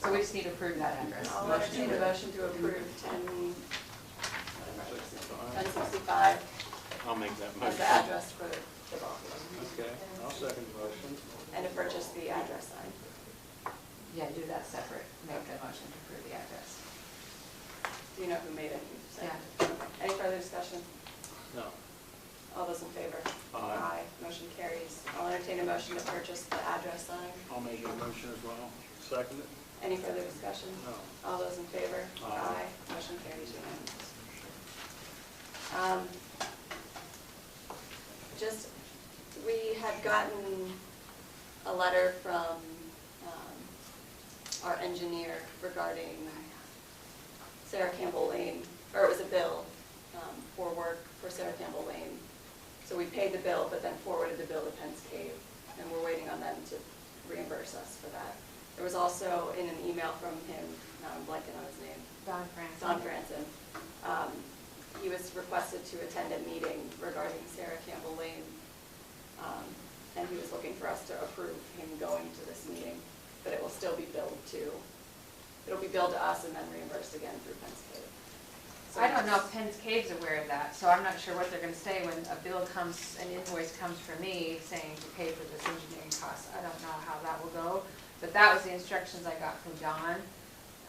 So we just need to approve that address. I'll Motion. entertain a motion to approve ten, whatever, ten sixty-five I'll make that as motion. the address for the ball field. Okay, I'll second the motion. And to purchase the address sign. Yeah, do that separate, make the motion to approve the address. Do you know who made it? Who said it? Any further discussion? No. All those in favor? Aye. Motion carries. I'll entertain a motion to purchase the address sign. I'll make that motion as well. Second it? Any further discussion? No. All those in favor? Aye. Motion carries unanimous. Um, Just, we had gotten a letter from um, our engineer regarding Sarah Campbell Lane, or it was a bill um, for work for Sarah Campbell Lane. So we paid the bill, but then forwarded the bill to Penn's Cave, and we're waiting on them to reimburse us for that. There was also in an email from him, now I'm blanking on his name, Don France. Don Franson. Um, He was requested to attend a meeting regarding Sarah Campbell Lane, um, and he was looking for us to approve him going to this meeting, but it will still be billed to, it'll be billed to us and then reimbursed again through Penn's Cave. So I don't know that's- if Penn's Cave's aware of that, so I'm not sure what they're gonna say when a bill comes, an invoice comes for me saying to pay for this engineering cost. I don't know how that will go, but that was the instructions I got from Don.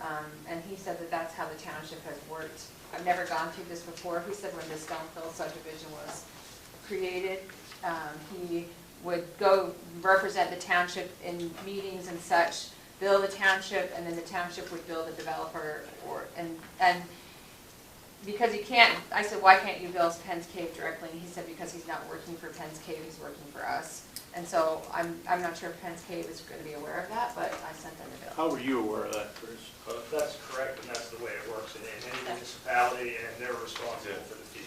Um, and he said that that's how the township has worked. I've never gone through this before. He said when the Stonefield subdivision was created, um, he would go represent the township in meetings and such, bill the township, and then the township would bill the developer or, and, and because you can't, I said, why can't you bill Penn's Cave directly? And he said, because he's not working for Penn's Cave, he's working for us. And so I'm, I'm not sure if Penn's Cave is gonna be aware of that, but I sent them the bill. How were you aware of that, Chris? Well, if that's correct, and that's the way it works in in any municipality, and they're responsible for the fee.